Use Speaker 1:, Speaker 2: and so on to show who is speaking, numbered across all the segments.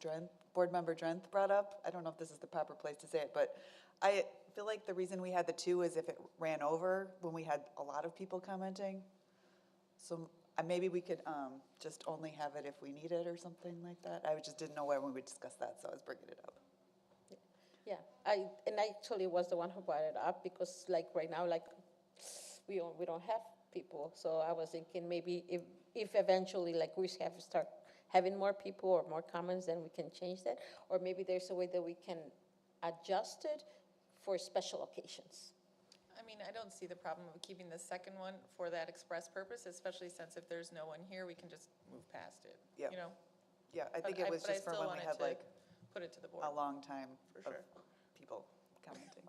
Speaker 1: Drenth, Board Member Drenth brought up. I don't know if this is the proper place to say it, but I feel like the reason we had the two is if it ran over when we had a lot of people commenting. So uh, maybe we could um, just only have it if we need it or something like that. I just didn't know when we would discuss that, so I was bringing it up.
Speaker 2: Yeah, I, and I actually was the one who brought it up because like right now, like, we don't, we don't have people. So I was thinking maybe if, if eventually like we have to start having more people or more comments, then we can change that. Or maybe there's a way that we can adjust it for special occasions.
Speaker 3: I mean, I don't see the problem of keeping the second one for that express purpose, especially since if there's no one here, we can just move past it,
Speaker 1: Yeah.
Speaker 3: you know?
Speaker 1: Yeah, I
Speaker 3: But
Speaker 1: think it was
Speaker 3: but I
Speaker 1: just for
Speaker 3: still
Speaker 1: when we
Speaker 3: wanted
Speaker 1: had
Speaker 3: to
Speaker 1: like
Speaker 3: Put it to the board.
Speaker 1: a long time
Speaker 3: For
Speaker 1: of
Speaker 3: sure.
Speaker 1: people commenting.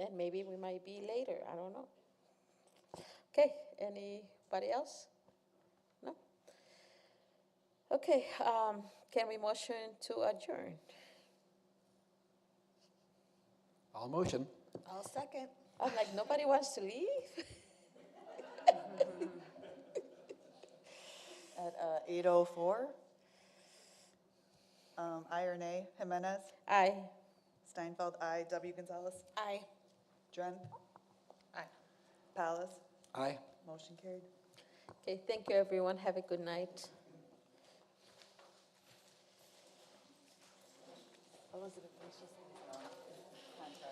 Speaker 2: And maybe we might be later, I don't know. Okay, anybody else? No? Okay, um, can we motion to adjourn?
Speaker 4: All motion.
Speaker 5: I'll second.
Speaker 2: I'm like, nobody wants to leave?
Speaker 1: At uh, 8:04, um, I or nay, Jimenez,
Speaker 2: Aye.
Speaker 1: Steinfeld, I, W Gonzalez,
Speaker 2: Aye.
Speaker 1: Dren,
Speaker 3: Aye.
Speaker 1: Palace,
Speaker 4: Aye.
Speaker 1: motion carried.
Speaker 2: Okay, thank you, everyone. Have a good night.
Speaker 1: Elizabeth